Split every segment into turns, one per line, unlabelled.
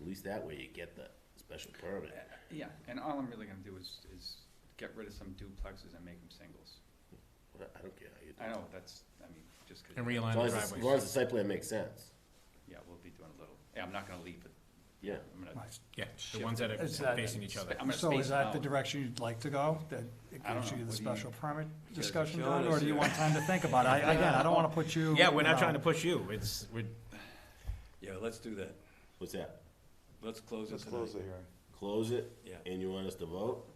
at least that way you get the special permit.
Yeah, and all I'm really gonna do is, is get rid of some duplexes and make them singles.
What- I don't care how you do it.
I know, that's, I mean, just 'cause.
And
As long
realign the
as, it's- as long as the
driveways.
site plan makes sense,
Yeah, we'll be doing a little, yeah, I'm not gonna leave it,
yeah.
I'm gonna,
Right.
Yeah, the
Shift
ones that
Is that-
are facing each other.
I'm gonna
So
space
is
it
that the
out.
direction you'd like to go? That it
I don't
gives
know.
you the
What do you-
special permit
guys are
discussion
killing
done, or
us
do you
here.
want time to think about it? I, again, I don't wanna put you.
Yeah, we're
you
not
know,
trying to push you, it's, we're,
Yeah, let's do that.
What's that?
Let's close it
Let's close the
tonight.
hearing.
Close it
Yeah,
and you want us to vote?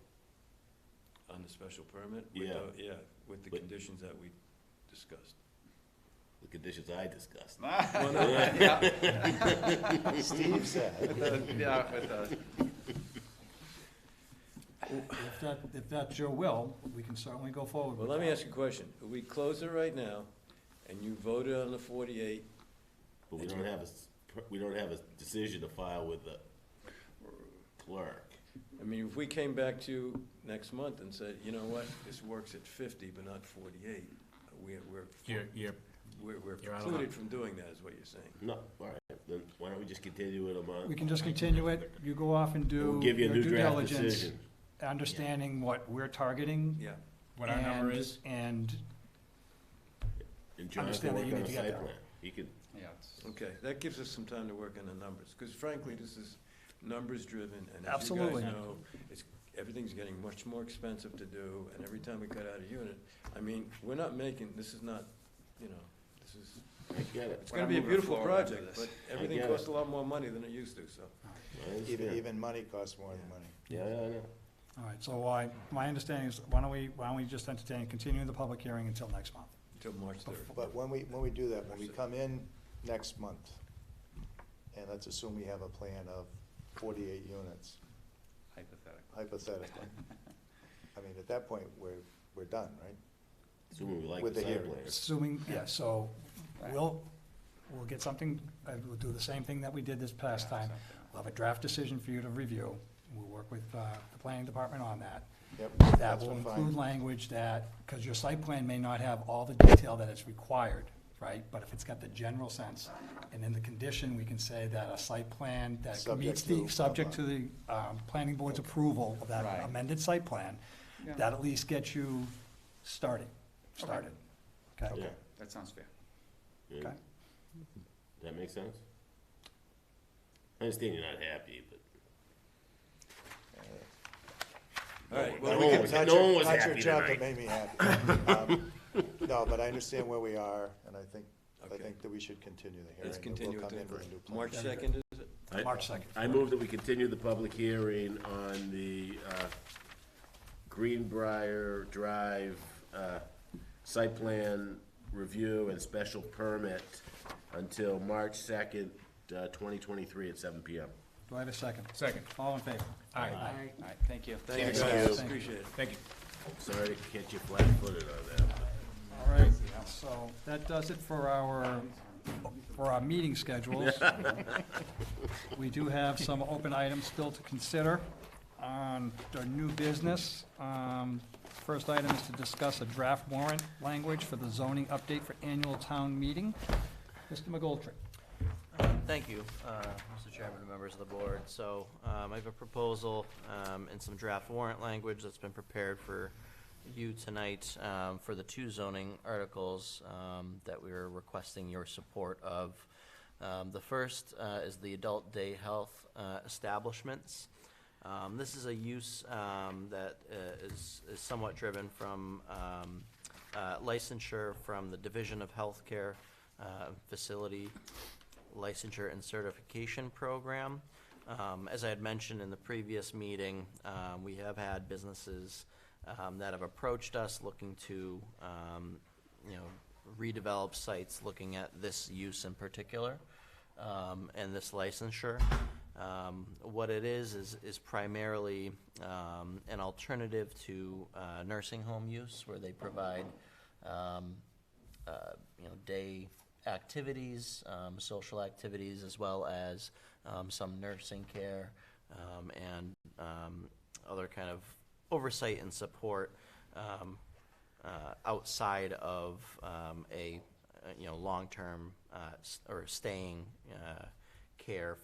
on the special permit? with
Yeah.
the- Yeah, with the
But-
conditions that we discussed.
The conditions I discussed.
Well, no,
Yeah.
yeah,
Steve said,
with the- yeah, with the-
If that, if that's your will, we can certainly go forward
Well,
with
let me
that.
ask you a question. If we close it right now, and you voted on the forty-eight,
But we don't have a, s- per- we don't have a decision to file with the clerk.
I mean, if we came back to you next month and said, you know what, this works at fifty, but not forty-eight, we're, we're,
you're, you're,
we're we're
You're out of
precluded from doing that, is what you're saying.
No, all right, then why don't we just continue it a month?
We can just continue it, you go off and
We'll
do
give you
your
a new
due
draft
diligence,
decision.
understanding what we're targeting.
Yeah,
what our number
and-
is.
And
And John can
Understand that
work
you
on
need
a
to get
site
there.
plan. He could,
yeah, it's-
okay, that gives us some time to work on the numbers, because frankly, this is numbers-driven, and as you guys
Absolutely.
know, it's, everything's getting much more expensive to do, and every time we cut out a unit, I mean, we're not making, this is not, you know, this is,
I get it.
it's
We're
gonna
not
be a
moving
beautiful
forward after
project, but
this.
everything
get
costs
it.
a lot more money than it used to, so.
I
even,
understand.
even money costs more than money.
Yeah, yeah, I know.
All right, so I, my understanding is, why don't we, why don't we just entertain, continuing the public hearing until next month?
Until March third.
But when we, when we do that, when we come in next month, and let's assume we have a plan of forty-eight units,
hypothetical.
hypothetically. I mean, at that point, we're, we're done, right?
Assuming we like
With
the
the
site
hearing.
plan.
Assuming, yeah, so we'll, we'll get something, uh, we'll do the same thing that we did this past
Yeah,
time.
something.
We'll have a draft decision for you to review. We'll work with uh, the planning department on that.
Yep.
That
that's
will
been fine.
include language that, because your site plan may not have all the detail that is required, right? But if it's got the general sense, and in the condition, we can say that a site plan that
Subject
meets the,
to-
subject to the um, planning board's approval of that
Right.
amended site plan,
Yeah.
that at least gets you started, started. Okay?
Yeah,
That sounds fair.
yeah.
Okay.
Does that make sense? I understand you're not happy, but.
All right,
No
well,
We
one
can-
was-
not
no
your-
one was
not your
happy
job that
tonight.
made me happy. Um, No, but I understand where we are, and I think, I
Okay.
think that we should continue the hearing.
let's
and
continue
We'll
it
come in with a new
to
plan.
March second, is it?
I-
March second.
I move that we continue the public hearing on the uh, Greenbrier Drive uh, site plan review and special permit until March 2nd, uh, 2023 at seven PM.
Do I have a second?
Second,
All in favor?
aye,
All right, thank you.
Thank you
Thank you.
guys, appreciate it.
thank you.
Sorry to catch you flat-footed on that.
All right, so that does it for our, for our meeting schedules. We do have some open items still to consider on our new business. Um, First item is to discuss a draft warrant language for the zoning update for annual town meeting. Mr. McGoldrick.
Thank you, uh, Mr. Chairman and members of the board. So um, I have a proposal um, and some draft warrant language that's been prepared for you tonight um, for the two zoning articles um, that we are requesting your support of. Um, The first uh, is the adult day health uh, establishments. Um, This is a use um, that uh, is is somewhat driven from um, uh, licensure from the Division of Healthcare uh, Facility licensure and certification program. Um, As I had mentioned in the previous meeting, um, we have had businesses um, that have approached us looking to, um, you know, redevelop sites, looking at this use in particular um, and this licensure. Um, What it is, is is primarily um, an alternative to uh, nursing home use, where they provide um, uh, you know, day activities, um, social activities, as well as um, some nursing care um, and um, other kind of oversight and support um, uh, outside of um, a, uh, you know, long-term uh, s- or staying uh, care